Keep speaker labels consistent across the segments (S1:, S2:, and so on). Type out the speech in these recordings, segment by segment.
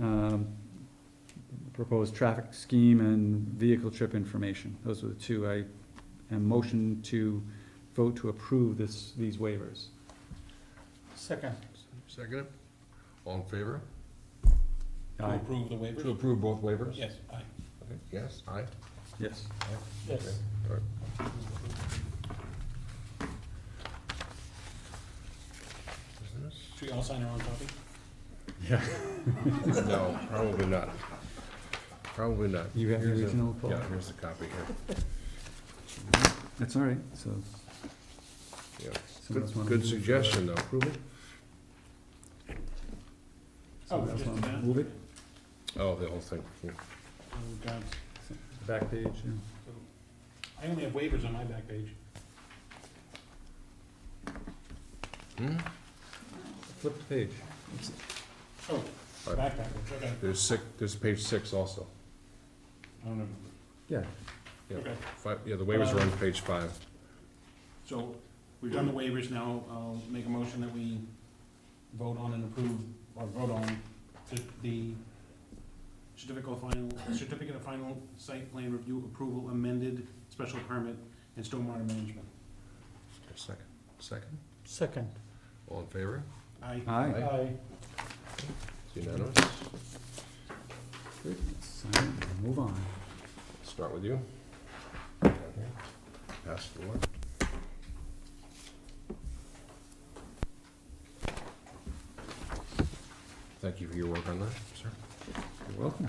S1: um, proposed traffic scheme and vehicle trip information. Those are the two. I am motion to vote to approve this, these waivers.
S2: Second.
S3: Second it? All in favor?
S2: To approve the
S3: To
S2: waivers?
S3: approve both waivers?
S2: Yes, aye.
S3: Okay, Yes, aye?
S1: Yes.
S3: Okay,
S2: Yes.
S3: all right. Is
S2: Should we all sign our own copy?
S1: Yeah.
S3: this- No, probably not. Probably not.
S1: You have the
S3: Here's a-
S1: original, Paul?
S3: Yeah, here's the copy here.
S1: That's all right, so.
S3: Yeah.
S1: someone else
S3: Good,
S1: wanna
S3: good
S1: move, uh,
S3: suggestion, though. Approve it?
S1: someone else
S2: just
S1: wanna
S2: that.
S1: Move it,
S3: Oh, the whole thing. yeah.
S2: Oh, God.
S1: back page, yeah.
S2: I only have waivers on my back page.
S3: Hmm?
S1: flip the page.
S2: Oh,
S3: All right.
S2: back back page, okay.
S3: There's six, there's page six also.
S2: I don't know.
S1: Yeah,
S3: Yeah.
S2: Okay,
S3: Five, yeah, the waivers are on page five.
S2: so we've done the waivers, now I'll make a motion that we vote on and approve, or vote on the- the certificate of final, certificate of final site plan review approval amended special permit and stormwater management.
S3: Second, second?
S2: Second.
S3: All in favor?
S2: Aye.
S1: aye.
S2: Aye.
S3: It's unanimous?
S1: Good. Sign it and Move on.
S3: Start with you. Down here. Pass the one. Thank you for your work on that, sir.
S1: You're welcome.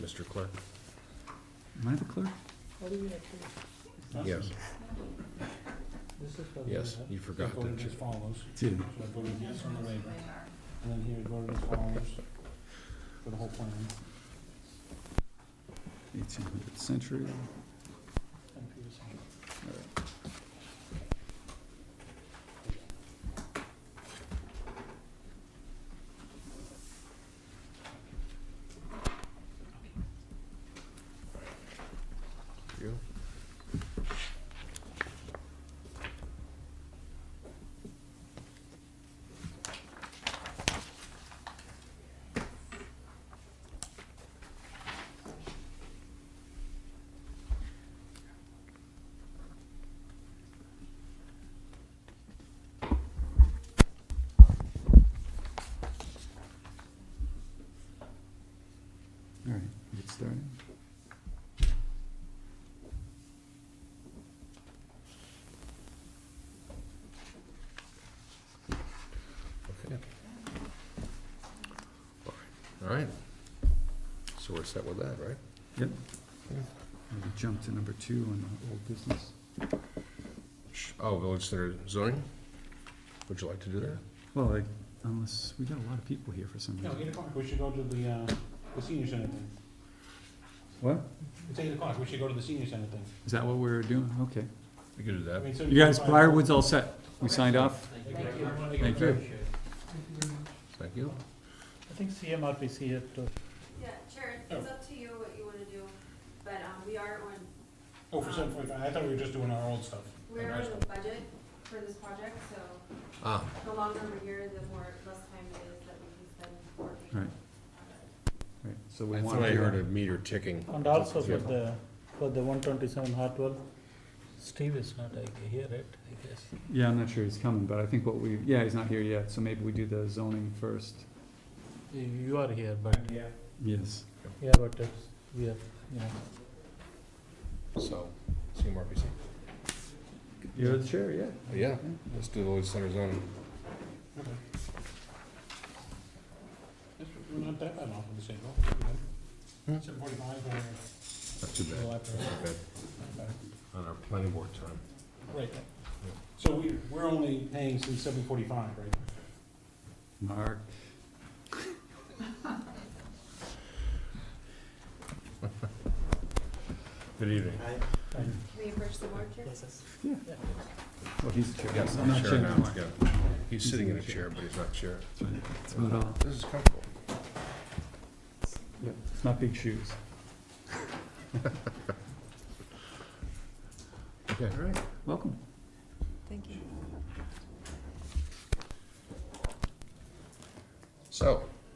S3: Mr. Clerk?
S1: Am I the clerk?
S3: Yes, yes, you
S2: I
S3: forgot,
S2: voted
S3: didn't you?
S2: as follows.
S1: Did.
S2: So I voted yes on the waiver, and then here I voted as follows for the whole plan.
S1: Eighteen hundred century.
S2: And Peter signed it.
S3: You?
S1: All right, we get started.
S3: Okay. All right, so we're set with that, right?
S1: Yep.
S3: Yeah.
S1: We jumped to number two on the old business.
S3: Sh- Oh, Village Center zoning? Would you like to do that?
S1: Well, like, unless, we got a lot of people here for some
S2: No, eight
S1: reason.
S2: o'clock, we should go to the, uh, the senior center thing.
S1: What?
S2: It's eight o'clock, we should go to the senior center thing.
S1: Is that what we're doing? Okay.
S3: We could do
S2: I
S3: that.
S2: mean, so
S1: You guys,
S2: can find-
S1: Briarwood's all set. We signed off.
S2: Thank you.
S1: Thank you.
S3: Thank you.
S4: I think CMRPC had to
S5: Yeah, sure, it's- it's up to you what you wanna do, but, um, we are on,
S2: Oh, for seven forty-five, I thought we were just doing our old stuff.
S5: we're
S2: Our
S5: on
S2: stuff.
S5: the budget for this project, so
S3: Ah,
S5: the longer we're here, the more, less time it is that we can spend working.
S1: Right. Right, So we
S3: I
S1: want
S3: thought
S1: to.
S3: I heard a meter ticking.
S4: and also for the, for the one twenty-seven Hartwell. Steve is not I here, right, I guess.
S1: Yeah, I'm not sure he's coming, but I think what we, yeah, he's not here yet, so maybe we do the zoning first.
S4: You you are here, but,
S2: Yeah.
S1: Yes.
S4: yeah, but it's, we are, you know.
S3: So, CMRPC.
S1: You're the chair, yeah.
S3: Yeah, let's do the Lloyd Center zoning.
S2: Okay. That's- We're not that bad off of the schedule.
S3: Hmm.
S2: Seven forty-five, or,
S3: Not too
S2: or
S3: bad,
S2: after.
S3: not too bad. On our planning board time.
S2: Right. So we, we're only paying since seven forty-five, right?
S1: Mark,
S3: Good evening.
S5: Can we approach the board, Chair?
S1: well, Oh, he's the chair.
S3: Yes,
S1: I'm not chair anymore.
S3: yeah. He's sitting in a chair, but he's not chair.
S1: That's right. That's about all.
S3: This is comfortable.
S1: Yep, it's not big shoes.
S3: Okay.
S1: All right, welcome.
S5: Thank you.
S3: So,